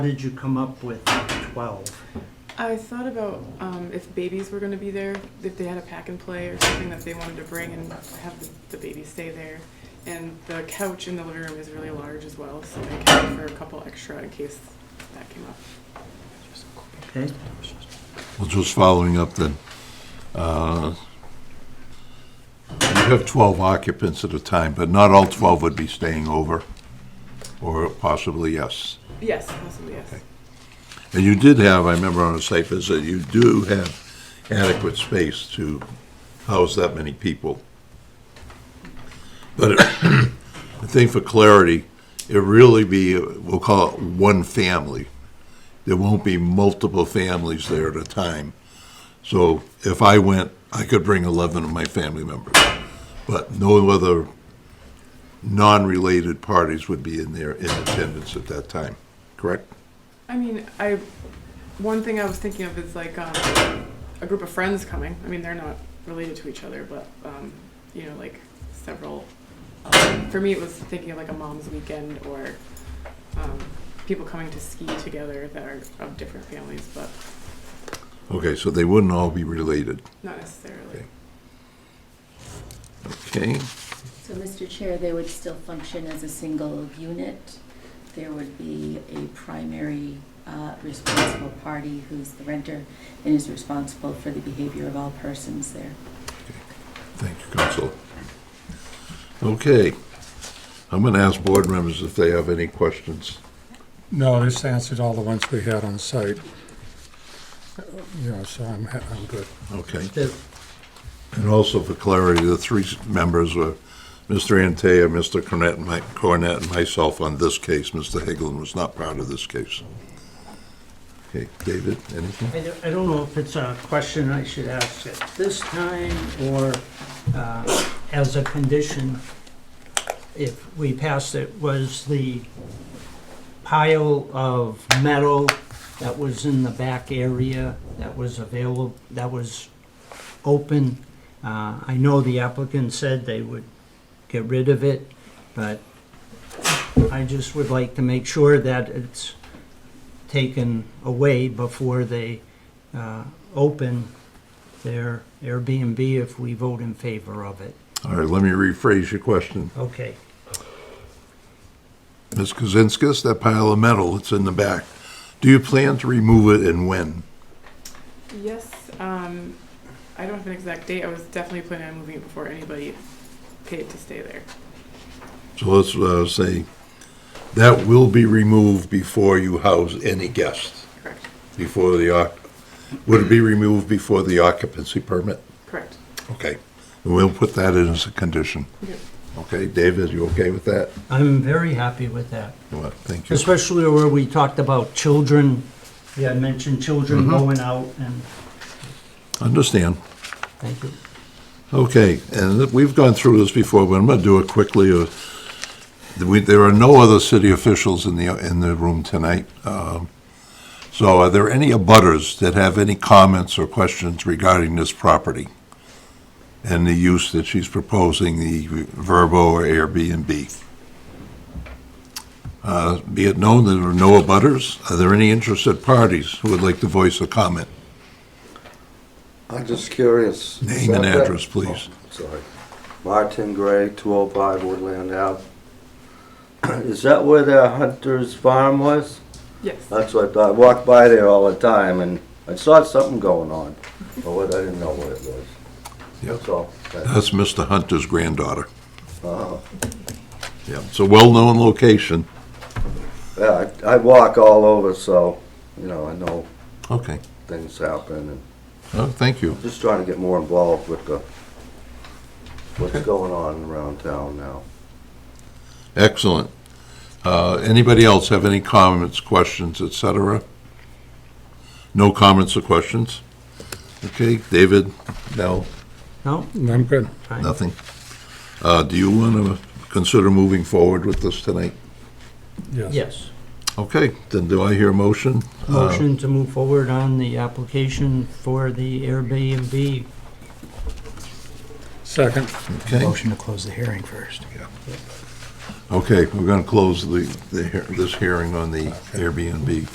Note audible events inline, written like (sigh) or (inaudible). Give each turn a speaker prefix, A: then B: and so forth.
A: How did you come up with 12?
B: I thought about um, if babies were going to be there, if they had a pack and play or something that they wanted to bring and have the, the baby stay there. And the couch in the living room is really large as well, so I counted for a couple extra in case that came up.
A: Okay,
C: Well, just following up then, uh, you have 12 occupants at a time, but not all 12 would be staying over, or possibly yes.
B: Yes, possibly yes.
C: And you did have, I remember on a site visit, you do have adequate space to house that many people. But I think for clarity, it really be, we'll call it one family. There won't be multiple families there at a time. So if I went, I could bring 11 of my family members, but no other non-related parties would be in there in attendance at that time, correct?
B: I mean, I one thing I was thinking of is like um, a group of friends coming. I mean, they're not related to each other, but um, you know, like several. Um, for me, it was thinking of like a mom's weekend or um, people coming to ski together that are of different families, but
C: Okay, so they wouldn't all be related,
B: not necessarily.
C: Okay. okay?
D: So, Mr. Chair, they would still function as a single unit. There would be a primary uh, responsible party who's the renter and is responsible for the behavior of all persons there.
C: Thank you, Council. Okay, I'm gonna ask board members if they have any questions.
E: No, this answered all the ones we had on site. You know, so I'm, ha- I'm good.
C: Okay,
A: The-
C: and also for clarity, the three members were Mr. Antaya, Mr. Cornet, and my, Cornet, and myself on this case. Mr. Hagelin was not part of this case. Okay, David, anything?
A: I don't- I don't know if it's a question I should ask at this time or uh, as a condition, if we passed it, was the pile of metal that was in the back area that was available, that was open. Uh, I know the applicant said they would get rid of it, but I just would like to make sure that it's taken away before they uh, open their Airbnb if we vote in favor of it.
C: All right, let me rephrase your question.
A: Okay,
C: Ms. Kozinskis, that pile of metal that's in the back, do you plan to remove it and when?
B: Yes, um, I don't have an exact date. I was definitely planning on moving it before anybody paid to stay there.
C: So let's uh, say that will be removed before you house any guests,
B: Correct.
C: before the, oc- would it be removed before the occupancy permit?
B: Correct.
C: Okay, we'll put that in as a condition.
B: Okay.
C: Okay, David, you okay with that?
A: I'm very happy with that,
C: Well, Thank you.
A: especially where we talked about children. We had mentioned children going out and,
C: Understand.
A: thank you.
C: Okay, and we've gone through this before, but I'm going to do it quickly. Uh, we- There are no other city officials in the, in the room tonight. Um, So are there any abutters that have any comments or questions regarding this property and the use that she's proposing, the Verbo or Airbnb? Uh, Be it known that there are no abutters. Are there any interested parties who would like to voice a comment?
F: I'm just curious.
C: Name
F: Is
C: and
F: that that-
C: address, please.
F: Oh, Sorry. Martin Gray, 205 Woodland Ave. (clears throat) Is that where the Hunter's Farm was?
B: Yes.
F: That's what I thought. I walked by there all the time and I saw something going on, but what, I didn't know what it was.
C: Yep.
F: That's all. That-
C: That's Mr. Hunter's granddaughter.
F: uh,
C: Yeah, it's a well-known location.
F: Yeah, I I walk all over, so, you know, I know
C: Okay.
F: things happen and
C: Oh, thank you.
F: just trying to get more involved with the, what's going on around town now.
C: Excellent. Uh, Anybody else have any comments, questions, et cetera? No comments or questions? Okay, David, no,
A: No,
E: I'm good.
A: fine.
C: nothing. Uh, Do you want to consider moving forward with this tonight?
A: Yes.
C: Okay, then do I hear a motion? Uh,
A: Motion to move forward on the application for the Airbnb.
E: Second,
C: Okay,
G: Motion to close the hearing first.
C: okay, we're going to close the, the hea- this hearing on the Airbnb